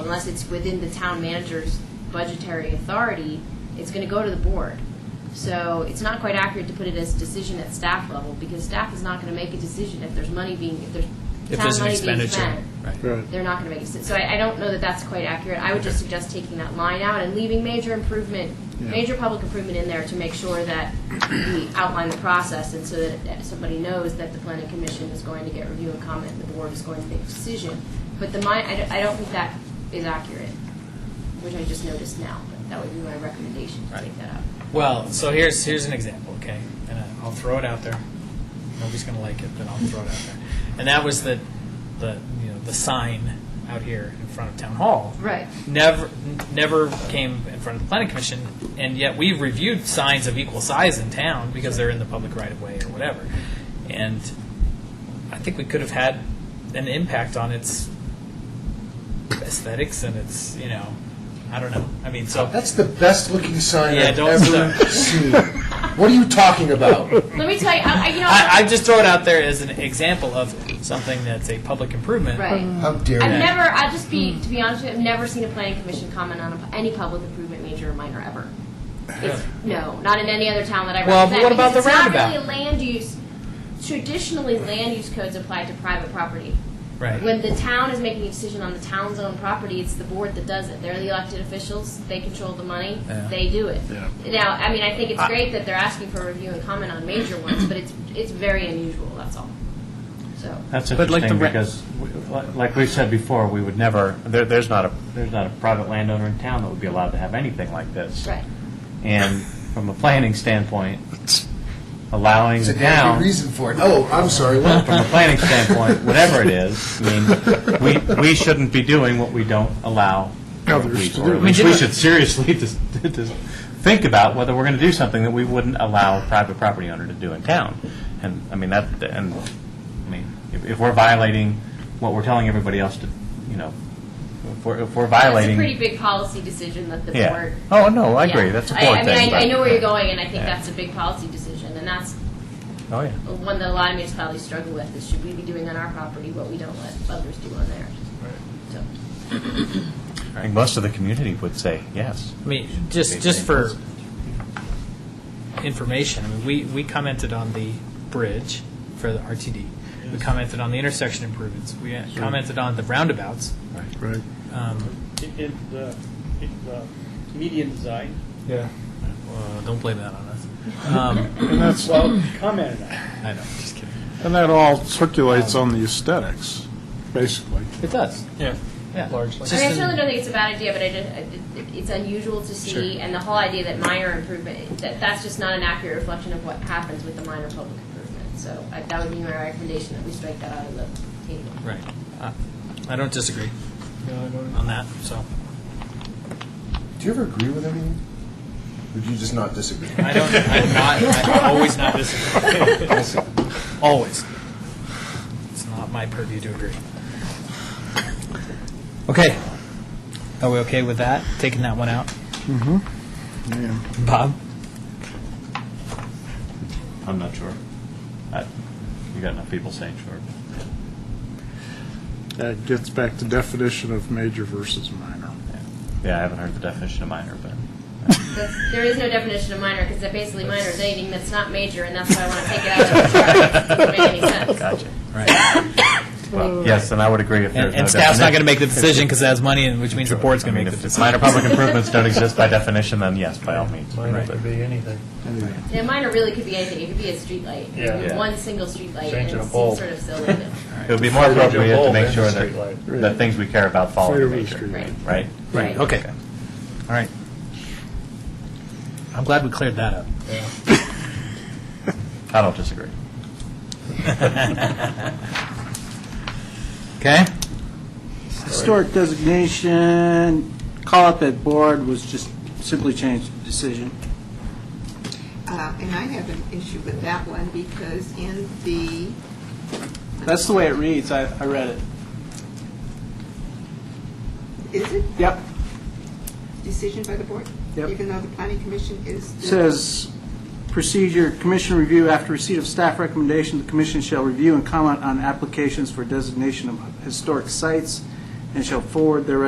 unless it's within the town manager's budgetary authority, it's going to go to the board. So it's not quite accurate to put it as decision at staff level, because staff is not going to make a decision if there's money being, if there's If town there's an money being expenditure. spent. Right. Right. They're not going to make a decision. So I, I don't know that that's quite accurate. I would just Okay. suggest taking that line out and leaving major improvement, Yeah. major public improvement in there to make sure that we outline the process and so that that somebody knows that the planning commission is going to get review and comment, and the board is going to make a decision. But the mi, I don't, I don't think that is accurate, which I just noticed now, but that would be my recommendation to Right. take that out. Well, so here's, here's an example, okay? And I- I'll throw it out there. Nobody's going to like it, but I'll throw it out there. And that was the, the, you know, the sign out here in front of Town Hall. Right. Never, n- never came in front of the planning commission, and yet we reviewed signs of equal size in town because they're in the public right of way or whatever. And I think we could have had an impact on its aesthetics and its, you know, I don't know. I mean, so. That's the best looking sign Yeah, I've don't ever stop. seen. What are you talking about? Let me tell you, I, I- you know. I, I just throw it out there as an example of something that's a public improvement. Right. How dare I've you? never, I'll just be, to be honest with you, I've never seen a planning commission comment on a- any public improvement, major or minor, ever. It's, no, not in any other town that I Well, represent. but what about because the It's roundabout? not really a land use, traditionally, land use codes apply to private property. Right. When the town is making a decision on the town's own property, it's the board that does it. They're the elected officials, they control the money, Yeah. they do it. Yeah. Now, I mean, I think it's I- great that they're asking for review and comment on major ones, but it's, it's very unusual, that's all. So. That's But like interesting, the re- because, w- like we've said before, we would never, there, there's not a, there's not a private landowner in town that would be allowed to have anything like this. Right. And from a planning standpoint, allowing There's the a damn town, good reason for it. Oh, I'm sorry. What? from a planning standpoint, whatever it is, I mean, we, we shouldn't be doing what we don't allow Others others to to do. do. We should seriously just, just think about whether we're going to do something that we wouldn't allow a private property owner to do in town. And, I mean, that, and, I mean, if, if we're violating what we're telling everybody else to, you know, if we're, if we're That's a violating. pretty big policy decision that the Yeah. board. Oh, no, I agree, Yeah. that's a I- board I thing. mean, I, I know where you're going, and I think Yeah. that's a big policy decision, and that's Oh, yeah. one that a lot of municipalities struggle with, is should we be doing on our property what we don't let others do on theirs? So, I think most of the community would say yes. I mean, just, just for information, I mean, we, we commented on the bridge for the RTD. We commented on the intersection improvements. We uh, commented on the roundabouts. Right. Um, It, it, uh, it, uh, median design. Yeah. Well, Uh, don't blame that on us. Um, And that's, Well, commented on. it. I know, just kidding. and that all circulates on the aesthetics, basically. It does. Yeah. Yeah. Largely. I mean, I certainly don't think it's a bad idea, but I did, I did- it's unusual to see, and the whole idea that minor improvement, that, that's just not an accurate reflection of what happens with the minor public improvement. So I- that would be my recommendation, that we strike that out of the table. Right. Uh, I don't disagree on that, so. Do you ever agree with everything? Or do you just not disagree? I don't, I'm not, I always not disagree. Always. It's not my purview to agree. Okay. Are we okay with that? Taking that one out? Yeah. Bob? I'm not sure. I- You got enough people saying sure. That gets back to definition of major versus minor. Yeah, I haven't heard the definition of minor, but. That's, there is no definition of minor because basically minor is anything that's not major, and that's why I want to take it out of the chart. It doesn't make any sense. Gotcha. Right. Well, yes, and I would agree if there's And no and staff's not going to definition. make the decision because it has money, and which means the board's going I to mean, make the if it's decision. minor public improvements don't exist by definition, then yes, by all means. Mine could be anything. Yeah, minor really could be anything. It could be a street light. Yeah. Yeah. One single street light, and Changing it a seems bulb. sort of silly. But, It would be more Fire engine appropriate to bulb make and sure that, streetlight. that things we care about follow the Fire major, restraint. right. right? Right, okay. All right. I'm glad we cleared that up. I don't disagree. Okay? Historic designation, call up at board was just simply changed to decision. Uh, And I have an issue with that one because in the, That's the way it reads, I, I read it. is it Yep, decision by the board? Yep. Even though the planning commission is. the- says procedure, commission review, after receipt of staff recommendation, the commission shall review and comment on applications for designation of historic sites and shall forward their